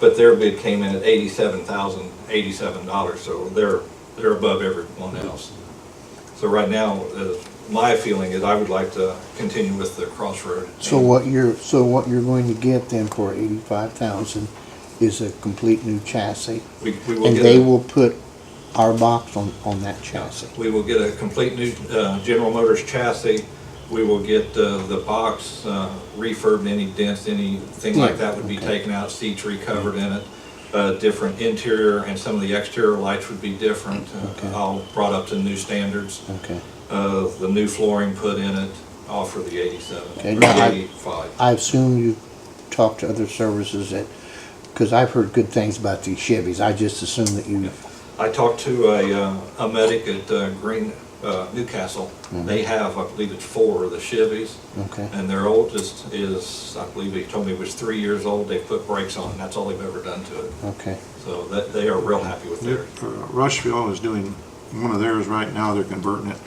But their bid came in at eighty-seven thousand, eighty-seven dollars, so they're, they're above everyone else. So right now, uh, my feeling is I would like to continue with the Crossroad. So what you're, so what you're going to get then for eighty-five thousand is a complete new chassis? We, we will And get they a- will put our box on, on that chassis? We will get a complete new uh, General Motors chassis. We will get uh, the box uh, refurbed, any dents, anything like that would be Yeah, taken out, seats recovered in it. uh, Different interior and some of the exterior lights would be different, uh, Okay. all brought up to new standards. Okay. Uh, The new flooring put in it, all for the 87, Okay, or now the I- 85. I assume you talked to other services that, because I've heard good things about these Chevys, I just assume that you, I talked to a, uh, a medic at uh, Green, uh, Newcastle. They have, I believe it's four of the Chevys. Mm-hmm. okay, And their oldest is, I believe he told me was three years old, they put brakes on, and that's all they've ever done to it. okay. So that, they are real happy with theirs. Uh, Rushville is doing one of theirs right now, they're converting it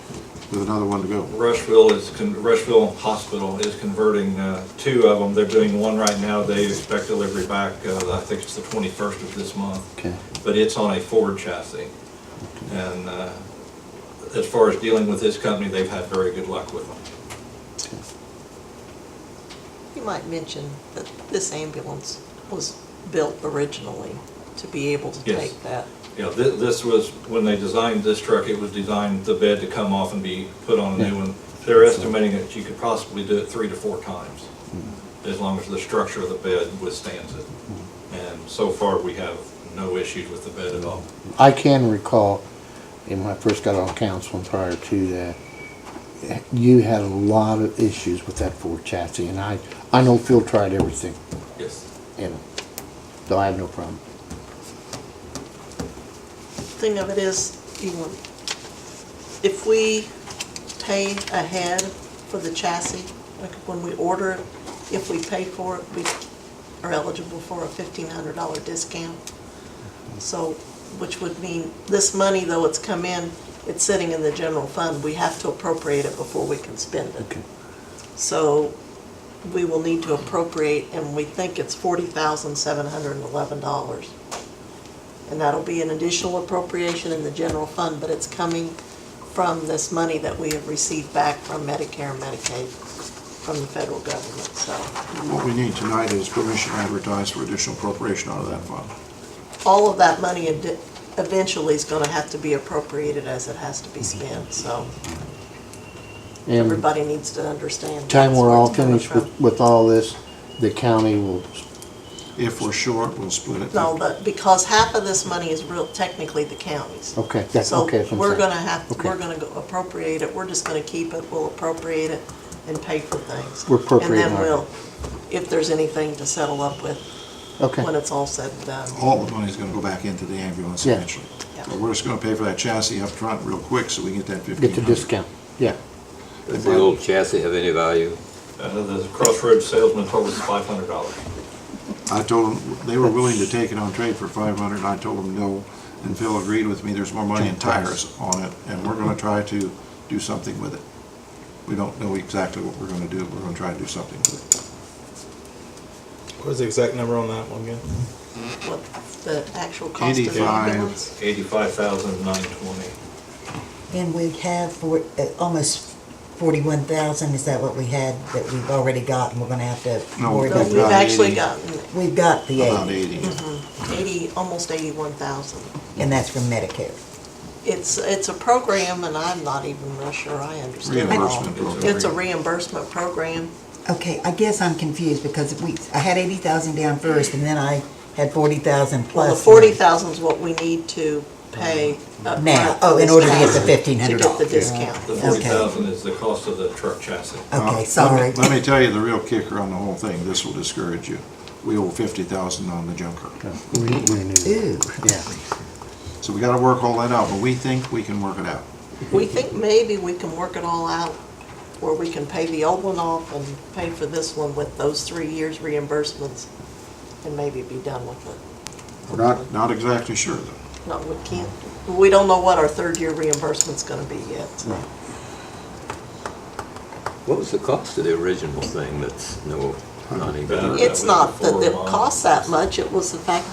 with another one to go. Rushville is, con- Rushville Hospital is converting uh, two of them, they're doing one right now, they expect delivery back, uh, I think it's the 21st of this month. Okay. But it's on a Ford chassis. And uh, as far as dealing with this company, they've had very good luck with them. You might mention that this ambulance was built originally to be able to Yes. take that. Yeah, thi- this was, when they designed this truck, it was designed, the bed to come off and be put on a new one. They're estimating that you could possibly do it three to four times, as long as the structure of the bed withstands it. And so far, we have no issues with the bed at all. I can recall, and when I first got on council and prior to that, you had a lot of issues with that Ford chassis, and I, I know Phil tried everything, Yes. and, so I have no problem. Thing of it is, you know, if we pay ahead for the chassis, like when we order it, if we pay for it, we are eligible for a fifteen hundred dollar discount. So, which would mean, this money, though it's come in, it's sitting in the general fund, we have to appropriate it before we can spend it. Okay. So we will need to appropriate, and we think it's forty thousand seven hundred and eleven dollars. And that'll be an additional appropriation in the general fund, but it's coming from this money that we have received back from Medicare and Medicaid from the federal government, so. What we need tonight is permission to advertise for additional appropriation out of that fund. All of that money ed- eventually is gonna have to be appropriated as it has to be spent, so And everybody needs to understand. time that's we're where all it's coming finished from. with, with all this, the county will, If we're short, we'll split it. No, but because half of this money is real, technically the county's. okay, that's, okay, that's So what I'm we're saying. gonna have, Okay. we're gonna go appropriate it, we're just gonna keep it, we'll appropriate it and pay for things. We're appropriating And then our- we'll, if there's anything to settle up with when Okay, it's all said and done. All the money's gonna go back into the ambulance Yeah. eventually. Yeah. But we're just gonna pay for that chassis up front real quick so we can get that fifteen get the hundred. discount, yeah, Does the old chassis have any value? Uh, The Crossroads salesman told us $500. I told them, they were willing to take it on trade for five hundred, and I told them no. And Phil agreed with me, there's more money in tires on it, and we're gonna try to do something with it. We don't know exactly what we're gonna do, we're gonna try to do something with it. What is the exact number on that one again? What the actual cost of the 85. ambulance. $85,920. And we have for, uh, almost forty-one thousand, is that what we had that we've already got and we're gonna have to No, worry No, about? we've About that? actually 80. gotten We've got the About eight, eighty. eighty, almost eighty-one thousand. and that's from Medicare. It's, it's a program and I'm not even real sure I understand it all. Reimbursement program. It's a reimbursement program. Okay, I guess I'm confused because we, I had eighty thousand down first and then I had forty thousand plus. Well, the forty thousand is what we need to pay upfront. Now, for oh, in this order to get the chassis, fifteen hundred To get dollars. the discount. The Okay. 40000 is the cost of the truck chassis. Now, let Okay, me- sorry. Let me tell you the real kicker on the whole thing, this will discourage you. We owe fifty thousand on the junker. we, we knew, Ooh, yeah. So we gotta work all that out, but we think we can work it out. We think maybe we can work it all out, where we can pay the old one off and pay for this one with those three years reimbursements, and maybe be done with it. We're not, not exactly sure though. No, we can't, we don't know what our third year reimbursement's gonna be yet, so. What was the cost of the original thing that's no Not even. Better. It's not that it Four costs that much, it was the fact